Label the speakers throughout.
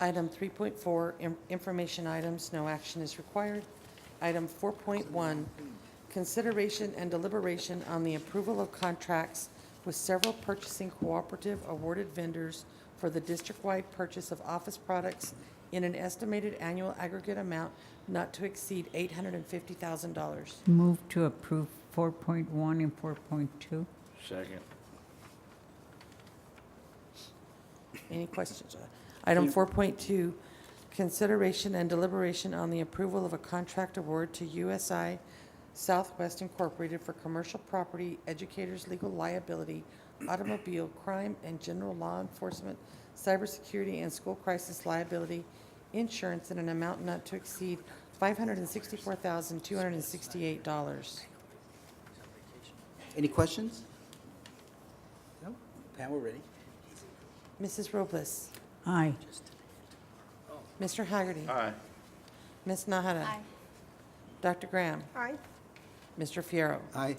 Speaker 1: Item 3.4, in- information items, no action is required. Item 4.1, consideration and deliberation on the approval of contracts with several purchasing cooperative awarded vendors for the district-wide purchase of office products in an estimated annual aggregate amount not to exceed $850,000.
Speaker 2: Move to approve 4.1 and 4.2.
Speaker 3: Second.
Speaker 1: Any questions? Item 4.2, consideration and deliberation on the approval of a contract award to USI Southwest Incorporated for commercial property, educators' legal liability, automobile, crime, and general law enforcement, cybersecurity, and school crisis liability insurance in an amount not to exceed $564,268.
Speaker 4: Any questions? No? Pam, we're ready.
Speaker 1: Mrs. Robles?
Speaker 2: Aye.
Speaker 1: Mr. Haggerty,
Speaker 3: Aye.
Speaker 1: Ms. Nahada?
Speaker 5: Aye.
Speaker 1: Dr. Graham?
Speaker 5: Aye.
Speaker 1: Mr. Fierro.
Speaker 4: Aye.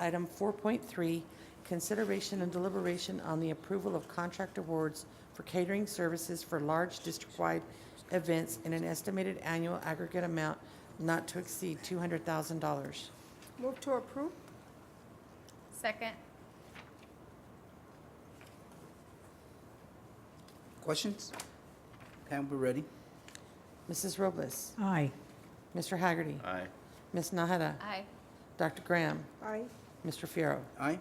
Speaker 1: Item 4.3, consideration and deliberation on the approval of contract awards for catering services for large district-wide events in an estimated annual aggregate amount not to exceed $200,000.
Speaker 5: Move to approve. Second.
Speaker 4: Questions? Pam, we're ready.
Speaker 1: Mrs. Robles.
Speaker 2: Aye.
Speaker 1: Mr. Haggerty.
Speaker 3: Aye.
Speaker 1: Ms. Nahada.
Speaker 5: Aye.
Speaker 1: Dr. Graham.
Speaker 5: Aye.
Speaker 1: Mr. Fierro.
Speaker 4: Aye.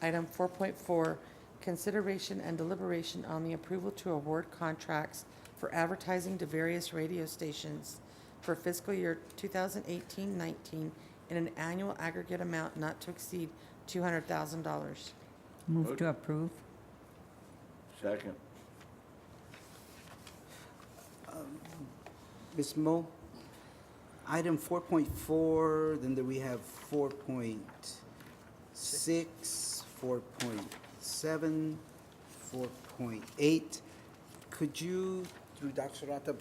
Speaker 1: Item 4.4, consideration and deliberation on the approval to award contracts for advertising to various radio stations for fiscal year 2018-19 in an annual aggregate amount not to exceed $200,000.
Speaker 2: Move to approve.
Speaker 3: Second.
Speaker 4: Ms. Mo, item 4.4, then there we have 4.6, 4.7, 4.8. Could you, through Dr. Rata,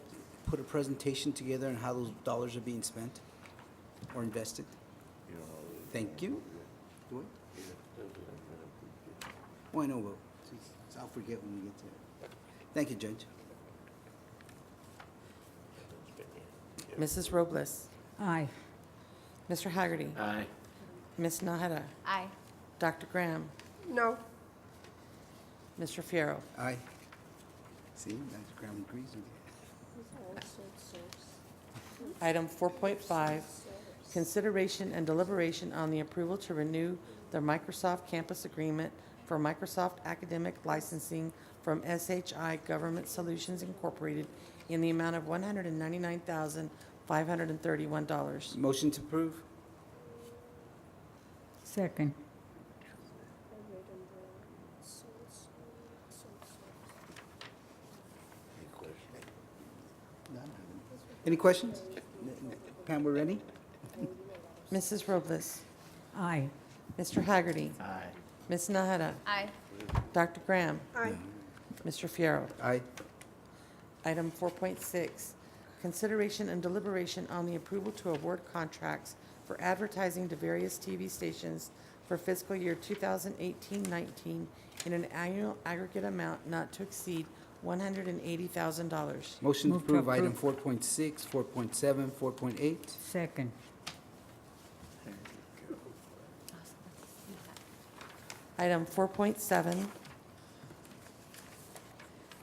Speaker 4: put a presentation together on how those dollars are being spent or invested? Thank you. Do I? Well, I know, but I'll forget when we get to it. Thank you, Judge.
Speaker 1: Mrs. Robles.
Speaker 2: Aye.
Speaker 1: Mr. Haggerty.
Speaker 3: Aye.
Speaker 1: Ms. Nahada.
Speaker 5: Aye.
Speaker 1: Dr. Graham.
Speaker 5: No.
Speaker 1: Mr. Fierro.
Speaker 4: Aye. See, that's Graham agrees with you.
Speaker 1: Item 4.5, consideration and deliberation on the approval to renew the Microsoft Campus Agreement for Microsoft Academic Licensing from SHI Government Solutions Incorporated in the amount of $199,531.
Speaker 4: Motion to approve?
Speaker 2: Second.
Speaker 4: Any questions? Pam, we're ready?
Speaker 1: Mrs. Robles,
Speaker 2: Aye.
Speaker 1: Mr. Haggerty,
Speaker 3: Aye.
Speaker 1: Ms. Nahada,
Speaker 5: Aye.
Speaker 1: Dr. Graham,
Speaker 5: Aye.
Speaker 1: Mr. Fierro.
Speaker 4: Aye.
Speaker 1: Item 4.6, consideration and deliberation on the approval to award contracts for advertising to various TV stations for fiscal year 2018-19 in an annual aggregate amount not to exceed $180,000.
Speaker 4: Motion to
Speaker 2: Move to
Speaker 4: approve item four
Speaker 2: approve.
Speaker 4: point six, four point seven, four point eight.
Speaker 2: Second.
Speaker 1: Item 4.7,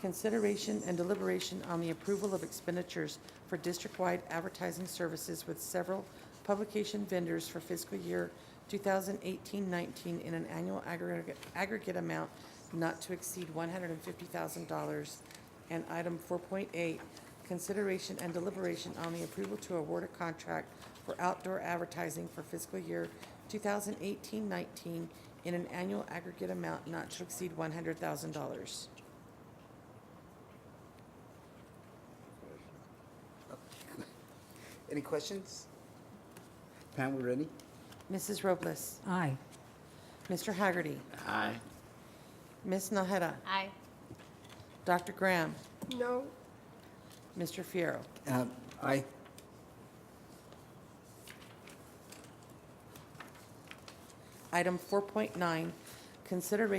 Speaker 1: consideration and deliberation on the approval of expenditures for district-wide advertising services with several publication vendors for fiscal year 2018-19 in an annual aggregate aggregate amount not to exceed $150,000. And item 4.8, consideration and deliberation on the approval to award a contract for outdoor advertising for fiscal year 2018-19 in an annual aggregate amount not to exceed $100,000.
Speaker 4: Any questions? Pam, we're ready?
Speaker 1: Mrs. Robles,
Speaker 2: Aye.
Speaker 1: Mr. Haggerty,
Speaker 3: Aye.
Speaker 1: Ms. Nahada,
Speaker 5: Aye.
Speaker 1: Dr. Graham,
Speaker 5: No.
Speaker 1: Mr. Fierro.
Speaker 4: Uh, aye.
Speaker 1: Item 4.9, consideration